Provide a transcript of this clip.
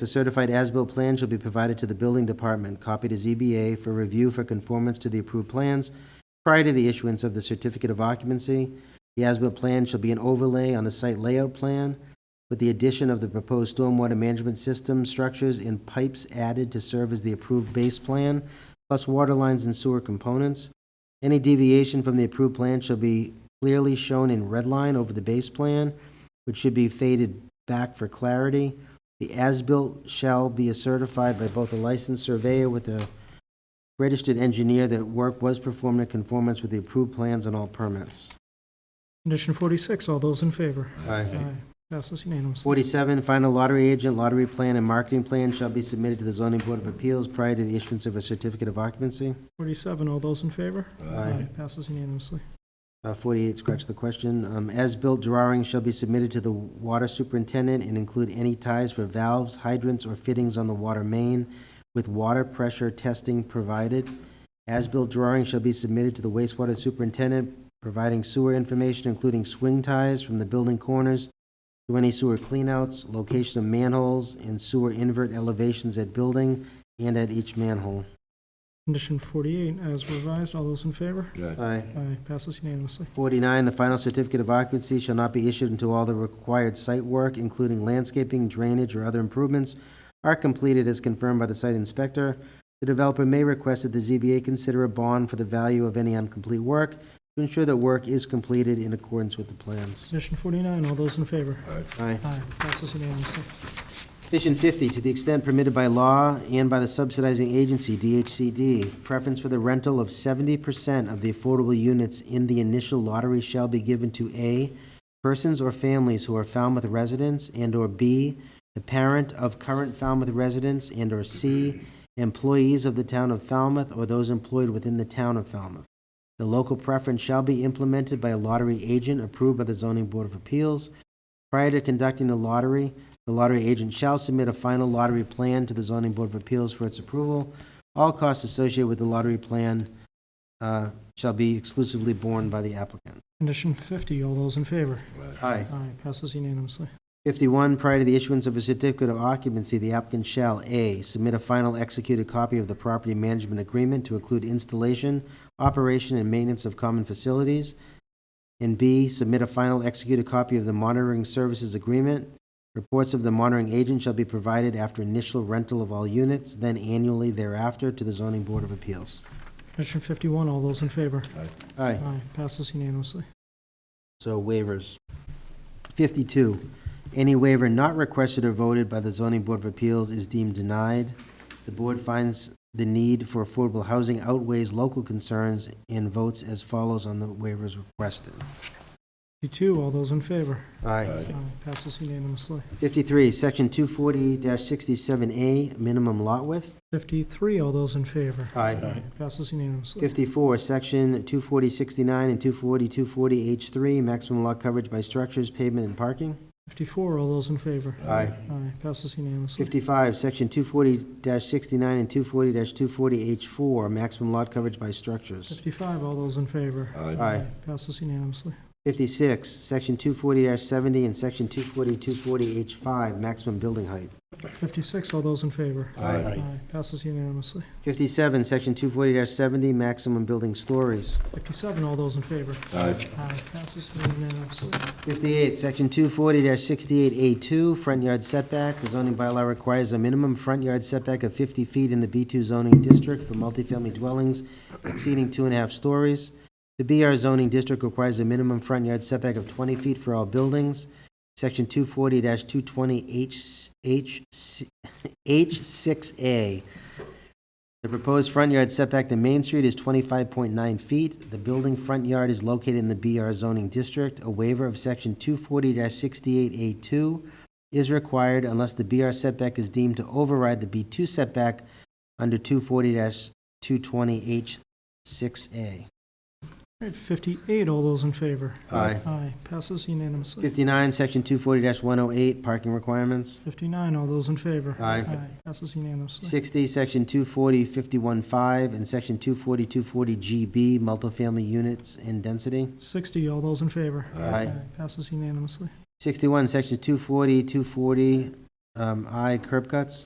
The certified as-built plan shall be provided to the building department, copy to ZBA for review for conformance to the approved plans prior to the issuance of the certificate of occupancy. The as-built plan shall be an overlay on the site layout plan with the addition of the proposed stormwater management system structures and pipes added to serve as the approved base plan, plus water lines and sewer components. Any deviation from the approved plan shall be clearly shown in red line over the base plan, which should be faded back for clarity. The as-built shall be certified by both a licensed surveyor with a registered engineer that work was performed in conformance with the approved plans on all permits. Condition 46, all those in favor? Aye. Passes unanimously. Forty-seven, final lottery agent, lottery plan, and marketing plan shall be submitted to the zoning board of appeals prior to the issuance of a certificate of occupancy. 47, all those in favor? Aye. Passes unanimously. Uh, Forty-eight, scratch the question. Um, As-built drawings shall be submitted to the water superintendent and include any ties for valves, hydrants, or fittings on the water main with water pressure testing provided. As-built drawings shall be submitted to the wastewater superintendent, providing sewer information, including swing ties from the building corners to any sewer cleanouts, location of manholes, and sewer invert elevations at building and at each manhole. Condition 48, as revised, all those in favor? Aye. Aye. Passes unanimously. 49, the final certificate of occupancy shall not be issued until all the required site work, including landscaping, drainage, or other improvements, are completed as confirmed by the site inspector. The developer may request that the ZBA consider a bond for the value of any incomplete work to ensure that work is completed in accordance with the plans. Condition 49, all those in favor? Aye. Aye. Passes unanimously. Condition 50, to the extent permitted by law and by the subsidizing agency, DHCD, preference for the rental of 70% of the affordable units in the initial lottery shall be given to A, persons or families who are Falmouth residents, and/or B, the parent of current Falmouth residents, and/or C, employees of the town of Falmouth or those employed within the town of Falmouth. The local preference shall be implemented by a lottery agent approved by the Zoning Board of Appeals. Prior to conducting the lottery, the lottery agent shall submit a final lottery plan to the zoning board of appeals for its approval. All costs associated with the lottery plan uh, shall be exclusively borne by the applicant. Condition 50, all those in favor? Aye. Aye. Passes unanimously. 51, prior to the issuance of a certificate of occupancy, the applicant shall, A, submit a final executed copy of the property management agreement to include installation, operation, and maintenance of common facilities, and B, submit a final executed copy of the monitoring services agreement. Reports of the monitoring agent shall be provided after initial rental of all units, then annually thereafter to the zoning board of appeals. Condition 51, all those in favor? Aye. Passes unanimously. So waivers. 52, any waiver not requested or voted by the zoning board of appeals is deemed denied. The board finds the need for affordable housing outweighs local concerns and votes as follows on the waivers requested. 52, all those in favor? Aye. Aye. Passes unanimously. 53, section 240-67A, minimum lot width. 53, all those in favor? Aye. Passes unanimously. 54, section 240-69 and 240-240H3, maximum lot coverage by structures, pavement, and parking. 54, all those in favor? Aye. Aye. Passes unanimously. 55, Section 240-69 and 240-240H4, maximum lot coverage by structures. 55, all those in favor? Aye. Passes unanimously. 56, Section 240-70 and Section 240-240H5, maximum building height. 56, all those in favor? Aye. Passes unanimously. 57, Section 240-70, maximum building stories. 57, all those in favor? Aye. Aye. Passes unanimously. 58, Section 240-68A2, front yard setback. The zoning bylaw requires a minimum front yard setback of 50 feet in the B2 zoning district for multifamily dwellings exceeding two and a half stories. The BR zoning district requires a minimum front yard setback of 20 feet for all buildings. Section 240-220H6A. The proposed front yard setback to Main Street is 25.9 feet. The building front yard is located in the BR zoning district. A waiver of Section 240-68A2 is required unless the BR setback is deemed to override the B2 setback under 240-220H6A. All right, 58, all those in favor? Aye. Aye. Passes unanimously. 59, Section 240-108, parking requirements. 59, all those in favor? Aye. Passes unanimously. 60, Section 240-51.5, and Section 240-240GB, multifamily units and density. 60, all those in favor? Aye. Passes unanimously. 61, Section 240, 240, Um, I, curb cuts.